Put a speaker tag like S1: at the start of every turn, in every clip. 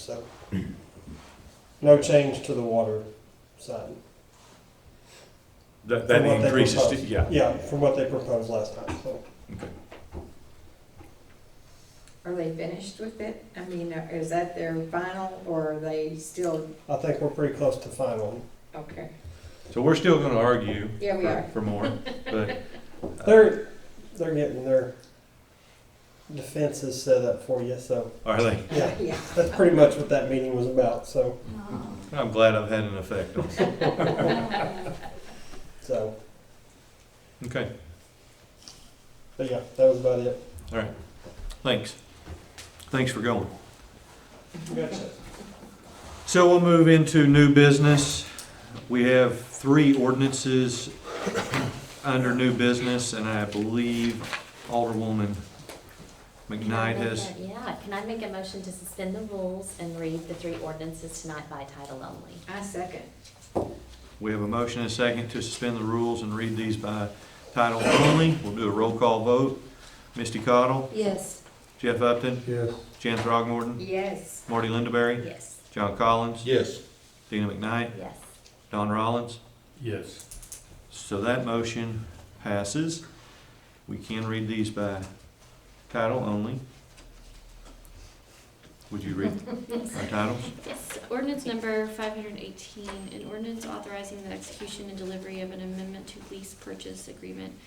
S1: so. No change to the water side.
S2: That,
S1: From
S2: that
S1: what they
S2: increases,
S1: proposed.
S2: yeah.
S1: Yeah, from what they proposed last time, so.
S3: Are they finished with it? I mean, is that their final or are they still,
S1: I think we're pretty close to final.
S3: okay,
S2: So we're still gonna argue
S3: yeah, we
S2: for-
S3: are.
S2: for more, but
S1: They're, they're getting their defenses set up for you, so,
S2: are they?
S1: yeah.
S3: Yeah.
S1: That's pretty much what that meeting was about, so,
S2: I'm glad I've had an effect on it.
S1: so,
S2: Okay,
S1: but yeah, that was about it.
S2: thanks. Thanks for going.
S1: Gotcha.
S2: So we'll move into new business. We have three ordinances under new business, and I believe Alderwoman McKnight has,
S4: Yeah, can I make a motion to suspend the rules and read the three ordinances tonight by title only?
S3: I second.
S2: we have a motion and a second to suspend the rules and read these by title only. We'll do a roll call vote. Misty Cottle,
S4: Yes.
S2: Jeff Upton,
S1: Yes.
S2: Jan Throgmorton,
S3: Yes.
S2: Marty Lindaberry,
S4: Yes.
S2: John Collins,
S5: Yes.
S2: Dina McKnight,
S4: Yes.
S2: Don Rollins.
S5: Yes.
S2: So that motion passes. We can read these by title only. Would you read our titles?
S6: Yes, ordinance number five hundred and eighteen, an ordinance authorizing the execution and delivery of an amendment to lease purchase agreement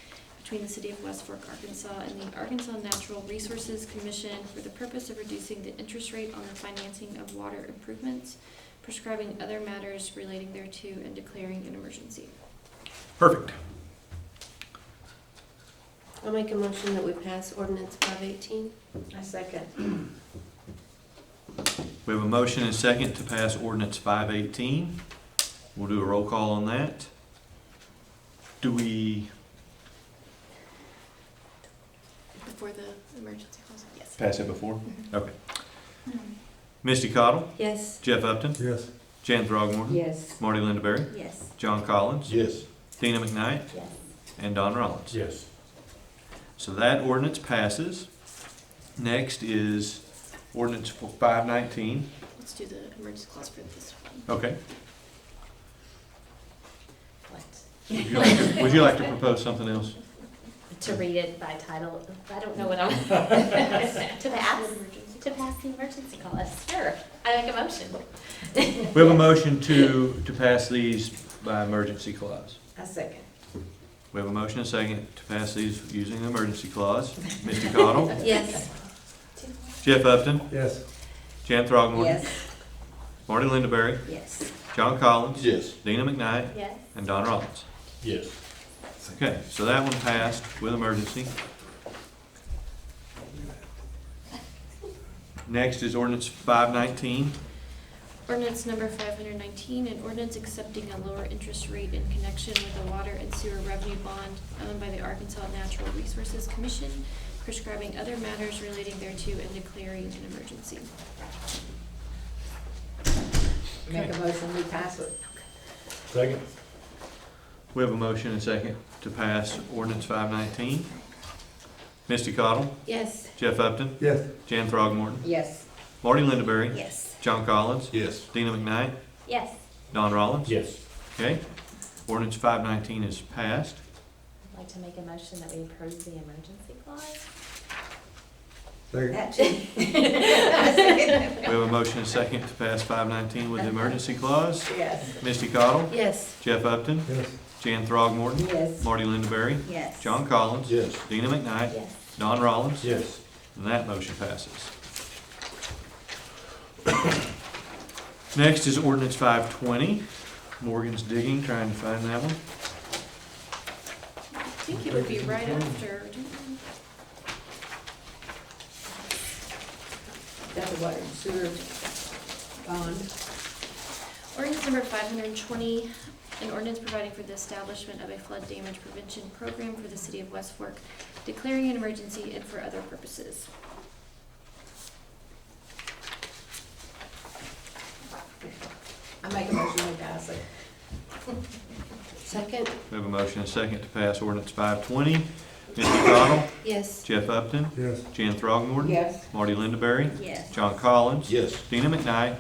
S6: between the city of West Fork, Arkansas and the Arkansas Natural Resources Commission for the purpose of reducing the interest rate on the financing of water improvements, prescribing other matters relating thereto, and declaring an emergency.
S2: Perfect.
S7: I'll make a motion that we pass ordinance five eighteen.
S3: I second.
S2: We have a motion and second to pass ordinance five eighteen. We'll do a roll call on that. Do we
S6: Before the emergency clause? Yes.
S2: pass it before? Okay. Misty Cottle,
S7: Yes.
S2: Jeff Upton,
S5: Yes.
S2: Jan Throgmorton,
S3: Yes.
S2: Marty Lindaberry,
S4: Yes.
S2: John Collins,
S5: Yes.
S2: Dina McKnight,
S4: Yes.
S2: and Don Rollins.
S5: Yes.
S2: So that ordinance passes. Next is ordinance five nineteen.
S6: Let's do the emergency clause for this one.
S2: Okay.
S4: What?
S2: Would you like to- would you like to propose something else?
S4: To read it by title, I don't know what I'm, to pass, to pass the emergency call, yes, sure. I make a motion.
S2: We have a motion to, to pass these by emergency clause.
S3: I second.
S2: We have a motion and a second to pass these using the emergency clause. Mr. Cottle,
S7: Yes.
S2: Jeff Upton,
S5: Yes.
S2: Jan Throgmorton,
S3: Yes.
S2: Marty Lindaberry,
S3: Yes.
S2: John Collins,
S5: Yes.
S2: Dina McKnight,
S4: Yes.
S2: and Don Rollins.
S5: Yes.
S2: Okay, so that one passed with emergency. Next is ordinance five nineteen.
S6: Ordinance number five hundred nineteen, an ordinance accepting a lower interest rate in connection with the water and sewer revenue bond owned by the Arkansas Natural Resources Commission, prescribing other matters relating thereto and declaring an emergency.
S3: Make a motion, we pass it.
S5: Second?
S2: We have a motion and second to pass ordinance five nineteen. Misty Cottle,
S3: Yes.
S2: Jeff Upton,
S5: Yes.
S2: Jan Throgmorton,
S3: Yes.
S2: Marty Lindaberry,
S4: Yes.
S2: John Collins,
S5: Yes.
S2: Dina McKnight,
S4: Yes.
S2: Don Rollins.
S5: Yes.
S2: Okay, ordinance five nineteen is passed.
S4: I'd like to make a motion that we approve the emergency clause.
S5: Second?
S3: That too. I second.
S2: We have a motion and second to pass five nineteen with the emergency clause.
S3: Yes.
S2: Misty Cottle,
S7: Yes.
S2: Jeff Upton,
S5: Yes.
S2: Jan Throgmorton,
S3: Yes.
S2: Marty Lindaberry,
S3: Yes.
S2: John Collins,
S5: Yes.
S2: Dina McKnight,
S4: Yes.
S2: Don Rollins,
S5: Yes.
S2: and that motion passes. Next is ordinance five twenty. Morgan's digging, trying to find that one.
S6: I think it would be right after,
S3: That's the water and sewer bond.
S6: Ordinance number five hundred and twenty, an ordinance providing for the establishment of a flood damage prevention program for the city of West Fork, declaring an emergency and for other purposes.
S3: I make a motion, we pass it.
S7: Second?
S2: We have a motion and a second to pass ordinance five twenty Mitch McConnell,
S7: Yes.
S2: Jeff Upton,
S5: Yes.
S2: Jan Throgmorton,
S3: Yes.
S2: Marty Lindaberry,
S4: Yes.
S2: John Collins,
S5: Yes.
S2: Dina McKnight,